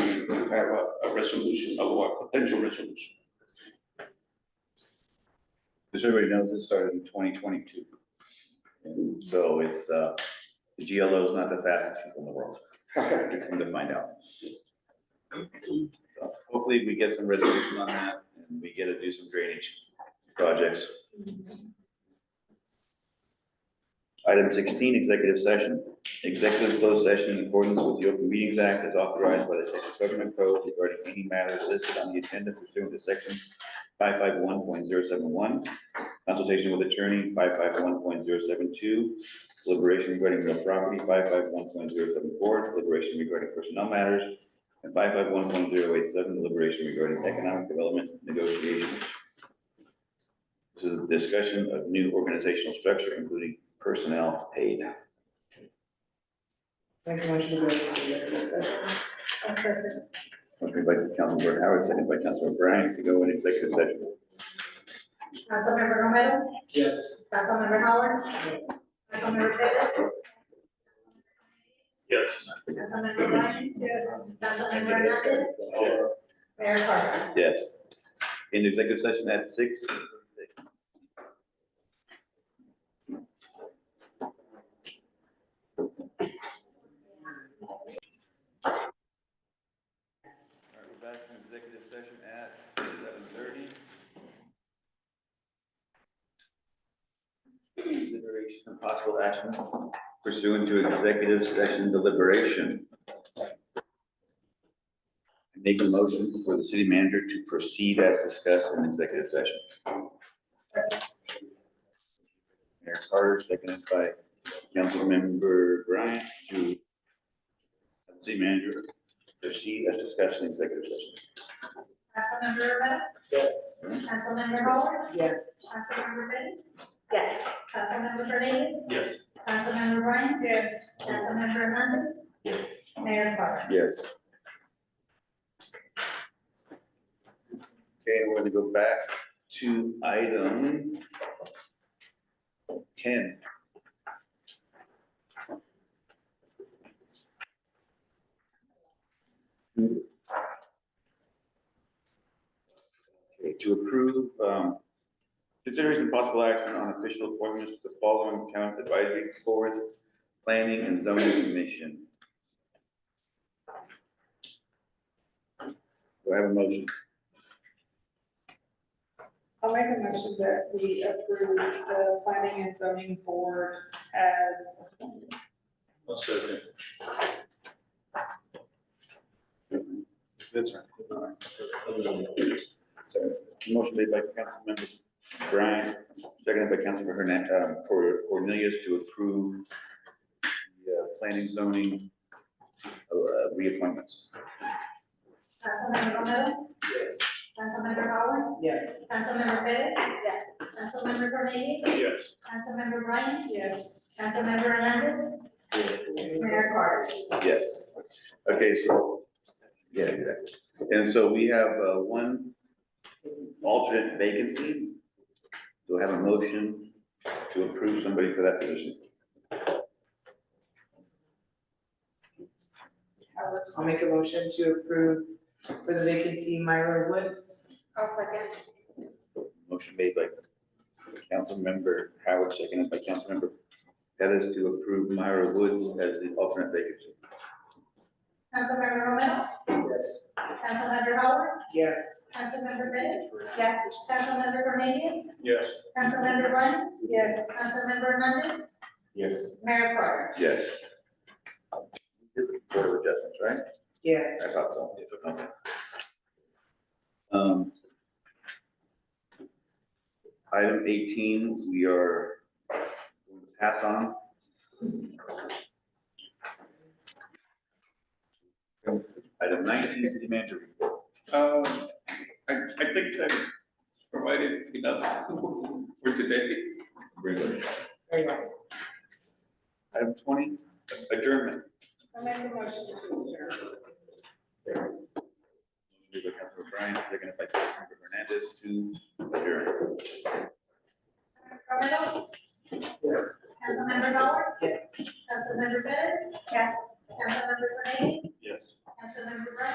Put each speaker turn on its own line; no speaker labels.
to have a, a resolution, of a potential resolution.
Just so everybody knows, this started in twenty twenty-two. And so it's, uh, the GLO is not the fastest people in the world, come to find out. So Hopefully we get some resolution on that and we get to do some drainage projects. Item sixteen, executive session. Executive closed session in accordance with the Open Meetings Act as authorized by the Texas Government Code regarding any matters listed on the agenda pursuant to section five five one point zero seven one, consultation with attorney, five five one point zero seven two, deliberation regarding real property, five five one point zero seven four, deliberation regarding personnel matters, and five five one point zero eight seven, deliberation regarding economic development negotiations. This is a discussion of new organizational structure, including personnel paid.
Make a motion to go into executive session.
Motion by Councilmember Howard, second by Councilmember Bryant, to go in executive session.
Councilmember Romero?
Yes.
Councilmember Howard? Councilmember Davis?
Yes.
Councilmember Ryan? Yes. Councilmember Hernandez? Mayor Carter?
Yes. In executive session at six. All right, we're back from executive session at seven thirty. Consideration of possible action pursuant to executive session deliberation. Make a motion for the city manager to proceed as discussed in executive session. Mayor Carter, seconded by Councilmember Bryant to have the city manager proceed as discussed in executive session.
Councilmember Romero?
Yes.
Councilmember Howard?
Yes.
Councilmember Davis? Yes.
Yes.
Councilmember Hernandez? Councilmember Ryan? Yes. Councilmember Hernandez?
Yes.
Mayor Carter?
Yes. Okay, we're gonna go back to item ten. Okay, to approve, um, consideration possible action on official appointments to the following town advisory board, planning and zoning commission. Do I have a motion?
I'll make a motion that we approve the planning and zoning board as.
I'll second.
That's right. Motion made by Councilmember Brian, seconded by Councilmember Hernan, uh, for Cornelius to approve the uh, planning zoning uh, reappointments.
Councilmember Romero?
Yes.
Councilmember Howard?
Yes.
Councilmember Davis? Yes. Councilmember Hernandez?
Yes.
Councilmember Ryan?
Yes.
Councilmember Hernandez? Mayor Carter?
Yes. Okay, so, yeah, exactly. And so we have uh, one alternate vacancy. Do I have a motion to approve somebody for that position?
I'll make a motion to approve for the vacancy Myra Woods.
I'll second.
Motion made by Councilmember Howard, seconded by Councilmember Pettis to approve Myra Woods as the alternate vacancy.
Councilmember Romero?
Yes.
Councilmember Howard?
Yes.
Councilmember Bettis? Yes. Councilmember Cornelius?
Yes.
Councilmember Ryan?
Yes.
Councilmember Hernandez?
Yes.
Mayor Carter?
Yes. Board of Adjustments, right?
Yes.
I thought so. Okay. Um, Item eighteen, we are going to pass on. Item nineteen, city manager report.
Um, I, I think that provided enough for today.
Bring it.
There you go.
Item twenty, adjournment.
I'll make a motion to adjourn.
Motion by Councilmember Bryan, seconded by Councilmember Hernandez to adjourn.
Romero?
Yes.
Councilmember Howard?
Yes.
Councilmember Bettis? Yes. Councilmember Cornelius?
Yes.
Councilmember Ryan?